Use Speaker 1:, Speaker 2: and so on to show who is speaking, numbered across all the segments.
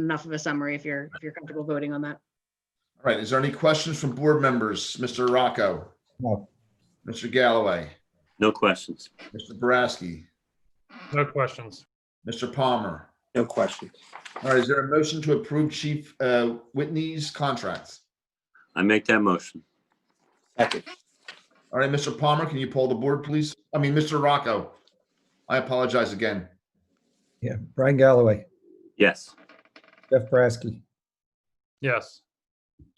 Speaker 1: enough of a summary if you're, if you're comfortable voting on that.
Speaker 2: All right, is there any questions from board members? Mr. Rocco?
Speaker 3: Oh,
Speaker 4: No.
Speaker 2: Mr. Galloway?
Speaker 5: No questions.
Speaker 2: Mr. Boraski?
Speaker 6: No questions.
Speaker 2: Mr. Palmer?
Speaker 4: No questions.
Speaker 2: All right, is there a motion to approve Chief uh, Whitney's contract?
Speaker 5: I make that motion.
Speaker 4: Second.
Speaker 2: All right, Mr. Palmer, can you pull the board, please? I mean, Mr. Rocco? I apologize again.
Speaker 3: Yeah, Brian Galloway,
Speaker 5: Yes.
Speaker 3: Jeff Brasky,
Speaker 6: Yes.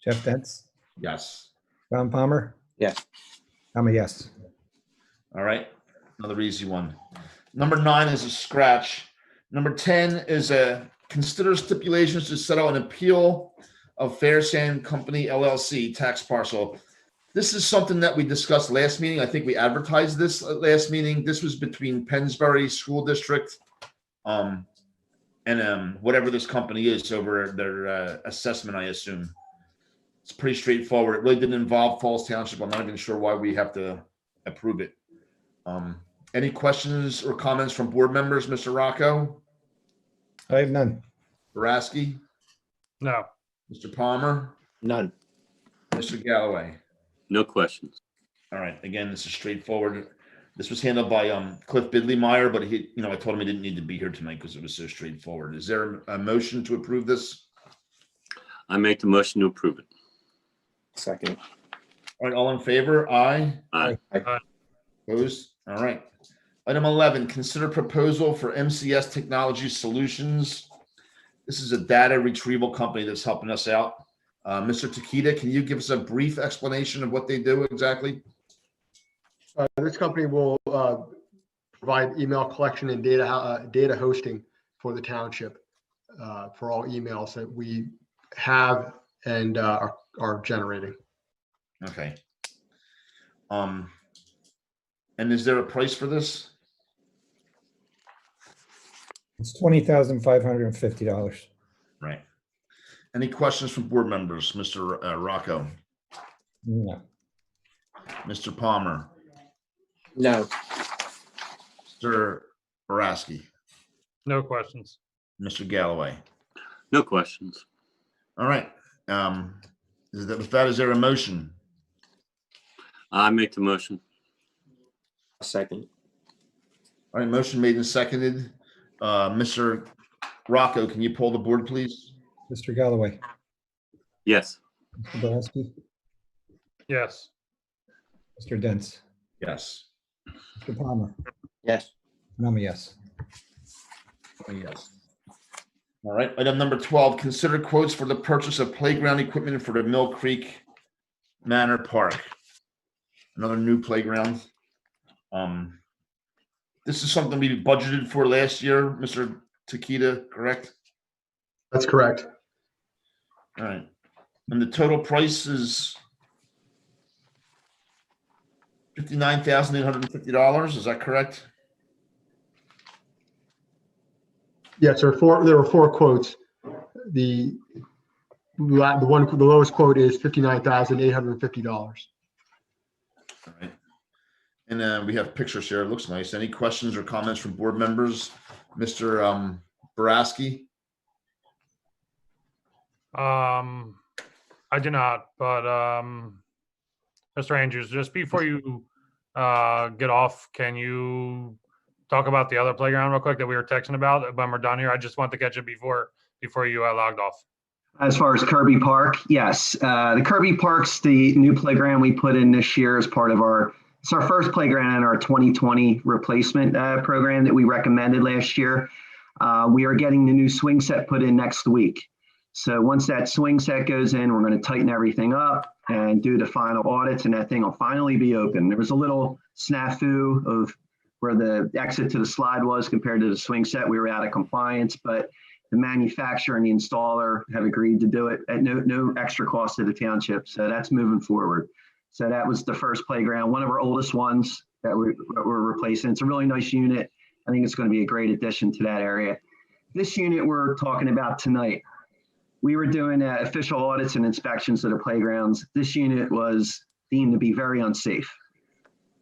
Speaker 3: Jeff Dents,
Speaker 2: Yes.
Speaker 3: Tom Palmer.
Speaker 4: Yes.
Speaker 3: I'm a yes.
Speaker 2: All right, another easy one. Number nine is a scratch. Number ten is a consider stipulations to settle an appeal of Fair Sand Company LLC tax parcel. This is something that we discussed last meeting. I think we advertised this at last meeting. This was between Pennsbury School District um, and um, whatever this company is over their uh, assessment, I assume. It's pretty straightforward. It really didn't involve Falls Township. I'm not even sure why we have to approve it. Um, any questions or comments from board members, Mr. Rocco,
Speaker 3: I have none.
Speaker 2: Boraski,
Speaker 6: No.
Speaker 2: Mr. Palmer,
Speaker 4: None.
Speaker 2: Mr. Galloway?
Speaker 5: No questions.
Speaker 2: All right, again, this is straightforward. This was handled by, um, Cliff Bidley Meyer, but he, you know, I told him he didn't need to be here tonight because it was so straightforward. Is there a motion to approve this?
Speaker 5: I make the motion to approve it.
Speaker 4: Second.
Speaker 2: All right, all in favor? Aye.
Speaker 5: Aye.
Speaker 6: Aye.
Speaker 2: Opposed? All right. Item 11, consider proposal for MCS Technology Solutions. This is a data retrieval company that's helping us out. Uh, Mr. Takita, can you give us a brief explanation of what they do exactly?
Speaker 7: Uh, This company will uh, provide email collection and data, ho- uh, data hosting for the township uh, for all emails that we have and uh, are- are generating.
Speaker 2: Okay. Um, and is there a price for this?
Speaker 3: It's twenty thousand five hundred and fifty dollars.
Speaker 2: Right. Any questions from board members? Mr. uh, Rocco,
Speaker 3: No,
Speaker 2: Mr. Palmer,
Speaker 4: No.
Speaker 2: Mr. Boraski,
Speaker 6: No questions.
Speaker 2: Mr. Galloway?
Speaker 5: No questions.
Speaker 2: All right. Um, is that, with that, is there a motion?
Speaker 5: I make the motion.
Speaker 4: Second.
Speaker 2: All right, motion made and seconded. Uh, Mr. Rocco, can you pull the board, please?
Speaker 3: Mr. Galloway,
Speaker 5: Yes.
Speaker 3: Mr. Brasky,
Speaker 6: Yes.
Speaker 3: Mr. Dents,
Speaker 2: Yes.
Speaker 3: Mr. Palmer,
Speaker 4: Yes.
Speaker 3: and I'm a yes.
Speaker 2: Oh, Yes. All right, item number twelve, consider quotes for the purchase of playground equipment for the Mill Creek Manor Park. Another new playground. Um, this is something we budgeted for last year, Mr. Takita, correct?
Speaker 7: That's correct.
Speaker 2: All right. And the total price is fifty-nine thousand eight hundred and fifty dollars, is that correct?
Speaker 7: Yes, there are four, there were four quotes. The, la- the one, the lowest quote is $59,850.
Speaker 2: All right. And uh, we have pictures here, it looks nice. Any questions or comments from board members? Mr. um, Boraski?
Speaker 6: Um, I do not, but, um, Mr. Andrews, just before you, uh, get off, can you talk about the other playground real quick that we were texting about when we're done here? I just want to catch it before, before you uh, logged off.
Speaker 8: As far as Kirby Park, yes. Uh, the Kirby Park's the new playground we put in this year as part of our, it's our first playground in our 2020 replacement uh, program that we recommended last year. Uh, we are getting the new swing set put in next week. So once that swing set goes in, we're going to tighten everything up and do the final audits, and that thing will finally be open. There was a little snafu of where the exit to the slide was compared to the swing set. We were out of compliance, but the manufacturer and the installer have agreed to do it at no, no extra cost to the township. So that's moving forward. So that was the first playground, one of our oldest ones that we, that we're replacing. It's a really nice unit. I think it's going to be a great addition to that area. This unit we're talking about tonight, we were doing uh, official audits and inspections of the playgrounds. This unit was deemed to be very unsafe.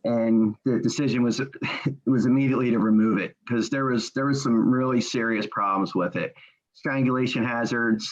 Speaker 8: And the decision was, was immediately to remove it because there was, there was some really serious problems with it strangulation hazards,